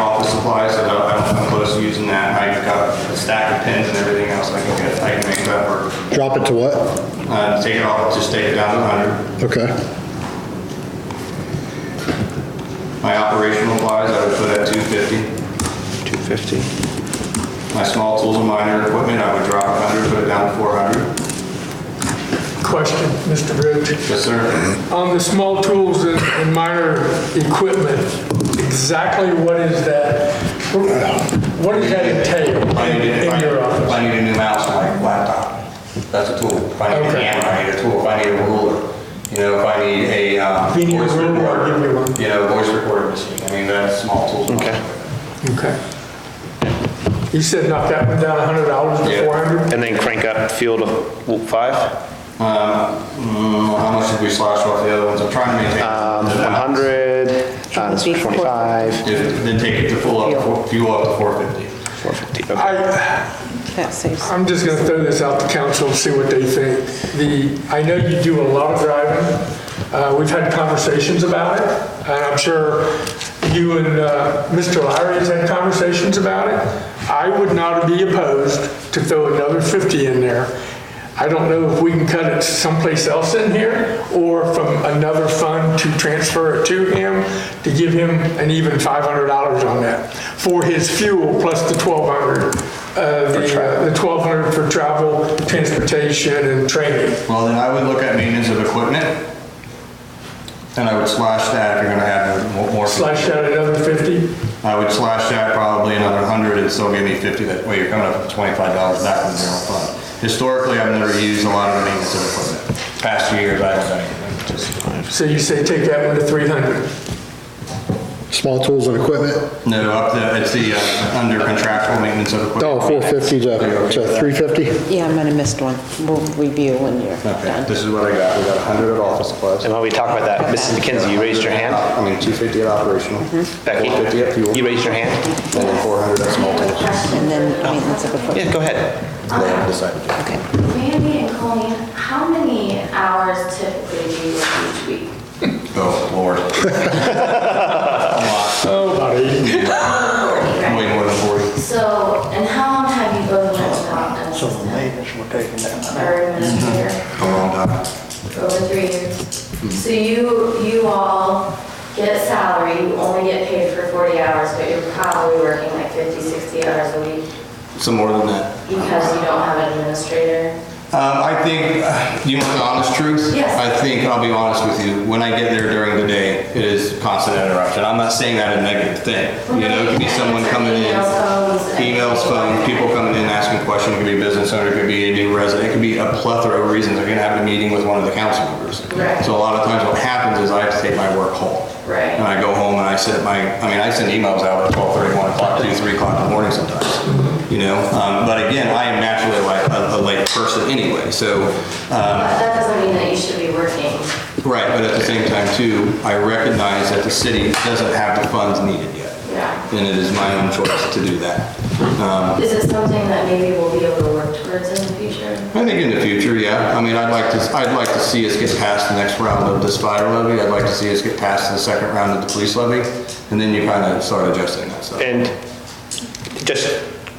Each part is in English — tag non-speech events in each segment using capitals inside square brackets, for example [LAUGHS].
office supplies, so I don't- I don't come close to using that. I got a stack of pins and everything else I can get, I can make that work. Drop it to what? Uh, Take it off, just take it down to 100. Okay. My operational wise, I would put at 250. 250. My small tools and minor equipment, I would drop 100, put it down to 400. Question, Mr. Rich. Yes, sir. On the small tools and- and minor equipment, exactly what is that? What does that entail If I in- need to- if I- in your If I office? need a new mouse for my laptop, that's a tool. If I need a Okay. camera, I need a tool. If I need a ruler, you know, if I need a uh, If you need a voice ruler, recorder, give me one. you know, voice recorder machine, I mean, that's small tools. Okay. Okay. You said knock that one down $100 Yeah. to 400? And then crank up fuel to five? Uh, mm, How much did we slash off the other ones? I'm trying to maintain. Um, the balance. 100, times would be four- 25, If- Then take it to full up, Fuel. fuel up to 450. 450, okay. I, That saves. I'm just going to throw this out to council and see what they think. The, I know you do a lot of driving. Uh, We've had conversations about it, and I'm sure you and uh, Mr. Larry has had conversations about it. I would not be opposed to throw another 50 in there. I don't know if we can cut it someplace else in here, or from another fund to transfer it to him, to give him an even $500 on that, for his fuel plus the 1,200 uh, the uh, the 1,200 for travel, transportation, and training. Well, then I would look at maintenance of equipment, and I would slash that if you're gonna have more- more. Slash out another 50? I would slash that probably another hundred and still give me fifty, that way you're coming up with twenty-five dollars back from the general fund. Historically, I've never used a lot of the maintenance of equipment. Past few years, I haven't done anything, just, So you say take that one to 300? Small tools and equipment? no, up the, it's the, uh, under contractual maintenance of equipment. Oh, 450 to to 350? Yeah, I might have missed one. We'll review when you're Okay, done. this is what I got, we got a hundred at office supplies. Uh, And while we talk about that, Mrs. McKenzie, you raised your hand? I mean, two fifty at operational, Becky, four fifty at fuel, you and raised your hand? then four hundred at [LAUGHS] small tools. And then uh, maintenance of Yeah, equipment. go ahead. They haven't decided yet. Okay. Randy and Colleen, how many hours typically do you work each week? Oh, [LAUGHS] Lord. [LAUGHS] Oh, about 80. [LAUGHS] Way more than forty. So, and how long have you both been involved in this? Or administrator, A long time. over three years? So you, you all get salary, you only get paid for 40 hours, but you're probably working like 50, 60 hours a week Some more than that. because you don't have an administrator? Um, I think, uh, you want the honest truth? Yes. I think, I'll be honest with you, when I get there during the day, it is constant interruption. I'm not saying that in a negative thing. You know, it could be someone coming in, emails, phone, people coming in asking questions, it could be a business owner, it could be a new resident, it could be a plethora of reasons. I could have a meeting with one of the council members. Right. So a lot of times what happens is I have to take my work home. Right. And I go home and I sit my, I mean, I send emails out at 12:30, 1 o'clock, 2, 3 o'clock in the morning sometimes, you know? Um, But again, I am naturally like a a late person anyway, so, um, But that doesn't mean that you should be working. right, but at the same time too, I recognize that the city doesn't have the funds needed yet. Yeah. And it is my own choice to do that. Um, Is it something that maybe we'll be able to work towards in the future? I think in the future, yeah. I mean, I'd like to, I'd like to see us get past the next round of this fire levy. I'd like to see us get past the second round of the police levy. And then you kind of start adjusting that stuff. And just,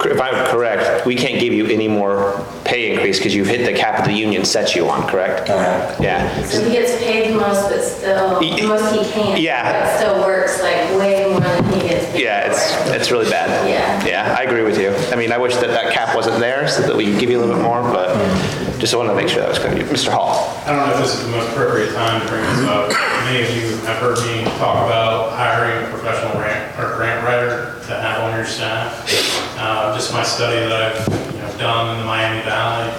if I'm correct, we can't give you any more pay increase because you've hit the cap that the union sets you on, correct? Correct. Yeah. So he gets paid the most, but still, Y- the most he can. yeah. But still works like way more than he gets paid. Yeah, it's, for. it's really bad. Yeah. Yeah, I agree with you. I mean, I wish that that cap wasn't there so that we could give you a little bit more, but just wanted to make sure that was clear. Mr. Hall? I don't know if this is the most appropriate time to bring this up. Many of you have heard me talk about hiring a professional grant, or grant writer to have on your staff. Uh, just my study that I've, you know, done in the Miami Valley,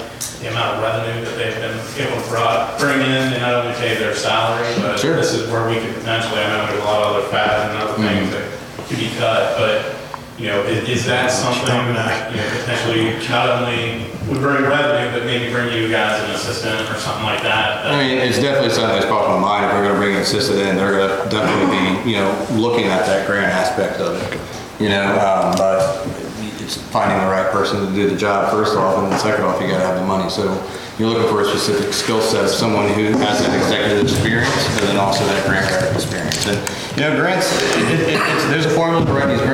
the amount of revenue that they've been able to brought, bring in, and not only pay their salary, but Sure. this is where we could potentially, I know there's a lot of other fat and other things that could be cut, but, you know, is, is that something that, you know, potentially not only would bring revenue, but maybe bring you guys an assistant or something like that? I mean, it's definitely something that's crossed my mind. If we're gonna bring an assistant in, they're gonna definitely be, you know, looking at that grant aspect of it, you know, um, but it's finding the right person to do the job first off, and then second off, you gotta have the money. So you're looking for a specific skill set, of someone who has that executive experience, and then also that grant writing experience. And, you know, grants, it, it, it's, there's a formula to write these grants.